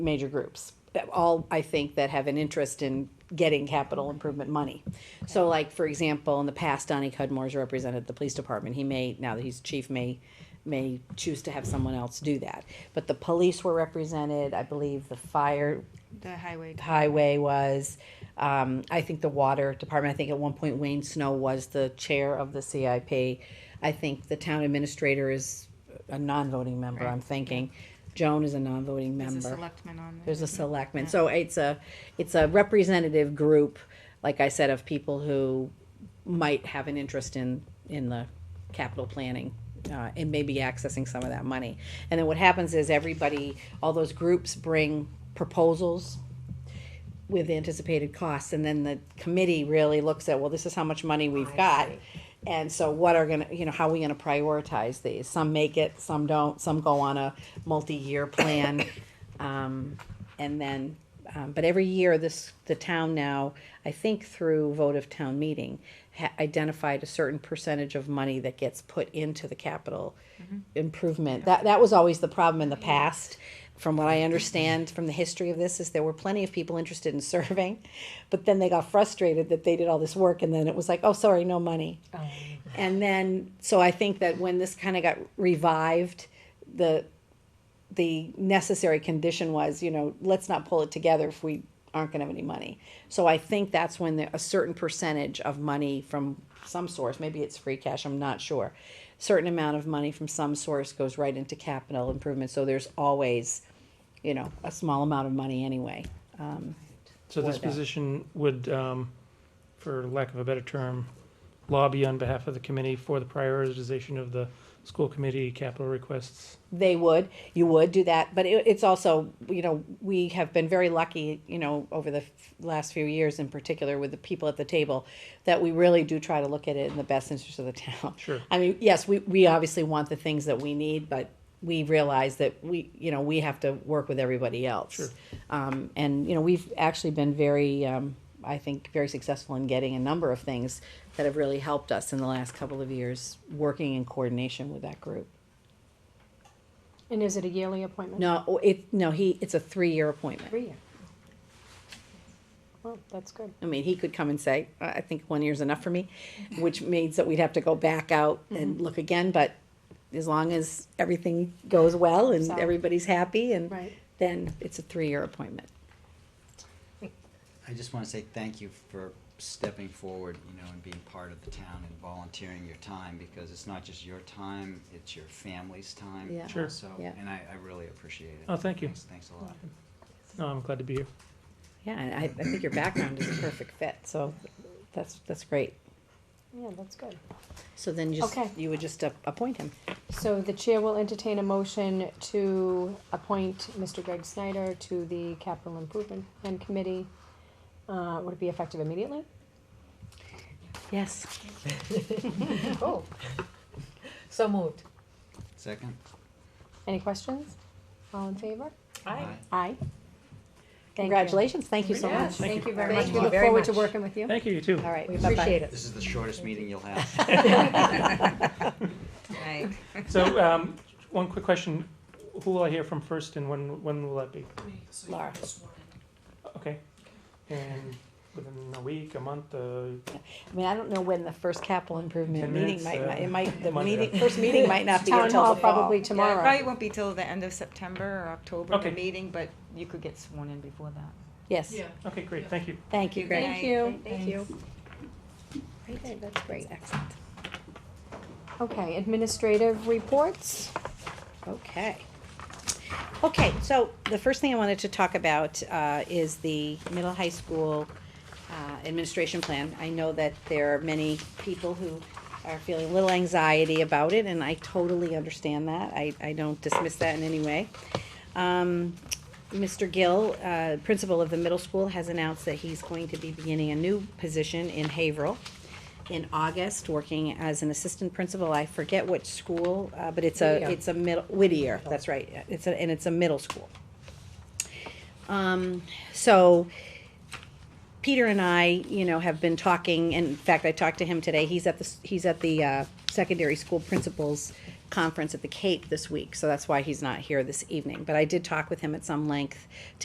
major groups, that all, I think, that have an interest in getting capital improvement money. So like, for example, in the past, Donnie Cudmore's represented the police department. He may, now that he's chief, may, may choose to have someone else do that. But the police were represented, I believe the fire The highway. highway was. Um, I think the water department, I think at one point Wayne Snow was the chair of the CIP. I think the town administrator is a non-voting member, I'm thinking. Joan is a non-voting member. There's a selectman on there. There's a selectman, so it's a, it's a representative group, like I said, of people who might have an interest in, in the capital planning, uh, and maybe accessing some of that money. And then what happens is everybody, all those groups bring proposals with anticipated costs, and then the committee really looks at, well, this is how much money we've got. And so what are gonna, you know, how are we gonna prioritize these? Some make it, some don't, some go on a multi-year plan. Um, and then, um, but every year, this, the town now, I think through vote of town meeting, ha- identified a certain percentage of money that gets put into the capital improvement. That, that was always the problem in the past, from what I understand from the history of this, is there were plenty of people interested in serving, but then they got frustrated that they did all this work, and then it was like, oh, sorry, no money. And then, so I think that when this kind of got revived, the the necessary condition was, you know, let's not pull it together if we aren't gonna have any money. So I think that's when the, a certain percentage of money from some source, maybe it's free cash, I'm not sure. Certain amount of money from some source goes right into capital improvement, so there's always, you know, a small amount of money anyway. Um, So this for that. position would, um, for lack of a better term, lobby on behalf of the committee for the prioritization of the school committee capital requests. They would, you would do that, but it, it's also, you know, we have been very lucky, you know, over the f- last few years in particular with the people at the table, that we really do try to look at it in the best interest of the town. Sure. I mean, yes, we, we obviously want the things that we need, but we realize that we, you know, we have to work with everybody else. Sure. Um, and, you know, we've actually been very, um, I think, very successful in getting a number of things that have really helped us in the last couple of years, working in coordination with that group. And is it a yearly appointment? No, oh, it, no, he, it's a three-year appointment. Every year. Well, that's good. I mean, he could come and say, I I think one year's enough for me, which means that we'd have to go back out and look again, but as long as everything goes well and So- everybody's happy and Right. then it's a three-year appointment. I just want to say thank you for stepping forward, you know, and being part of the town and volunteering your time, because it's not just your time, it's your family's time. Yeah. Sure. also, Yeah. And I, I really appreciate it. Oh, thank you. Thanks, thanks a lot. No, I'm glad to be here. Yeah, and I, I think your background is a perfect fit, so that's, that's great. Yeah, that's good. So then just, Okay. you would just a- appoint him. So the chair will entertain a motion to appoint Mr. Greg Snyder to the capital improvement Plan committee. Uh, would it be effective immediately? Yes. Cool. So moved. Second? Any questions? All in favor? Aye. Aye. Thank you. Congratulations, thank you so Yes, much. thank you very much. Thank you. We look Very forward to much. working with you. Thank you, you too. All right, We bye-bye. appreciate it. This is the shortest meeting you'll have. Right. So, um, one quick question, who will I hear from first and when, when will that be? Laura. Okay, and within a week, a month, uh, I mean, I don't know when the first capital improvement Ten meeting minutes, might, uh, might- it might, the Monday. meeting, first meeting might not be Town until hall the fall. probably Yeah, it probably tomorrow. won't be till the end of September or October, the Okay. meeting, but you could get sworn in before that. Yes, okay, great, thank you. thank you, Thank Greg. Thank you. Thank you. Okay, that's great. Excellent. Okay, administrative reports. Okay. Okay, so the first thing I wanted to talk about uh, is the middle high school uh, administration plan. I know that there are many people who are feeling a little anxiety about it, and I totally understand that. I, I don't dismiss that in any way. Um, Mr. Gill, uh, principal of the middle school, has announced that he's going to be beginning a new position in Haverhill in August, working as an assistant principal. I forget which school, uh, but it's a, Whittier. it's a middle, Whittier, that's right. It's a, and it's a middle school. Um, so Peter and I, you know, have been talking, and in fact, I talked to him today, he's at the, s- he's at the, uh, secondary school principals conference at the Cape this week, so that's why he's not here this evening. But I did talk with him at some length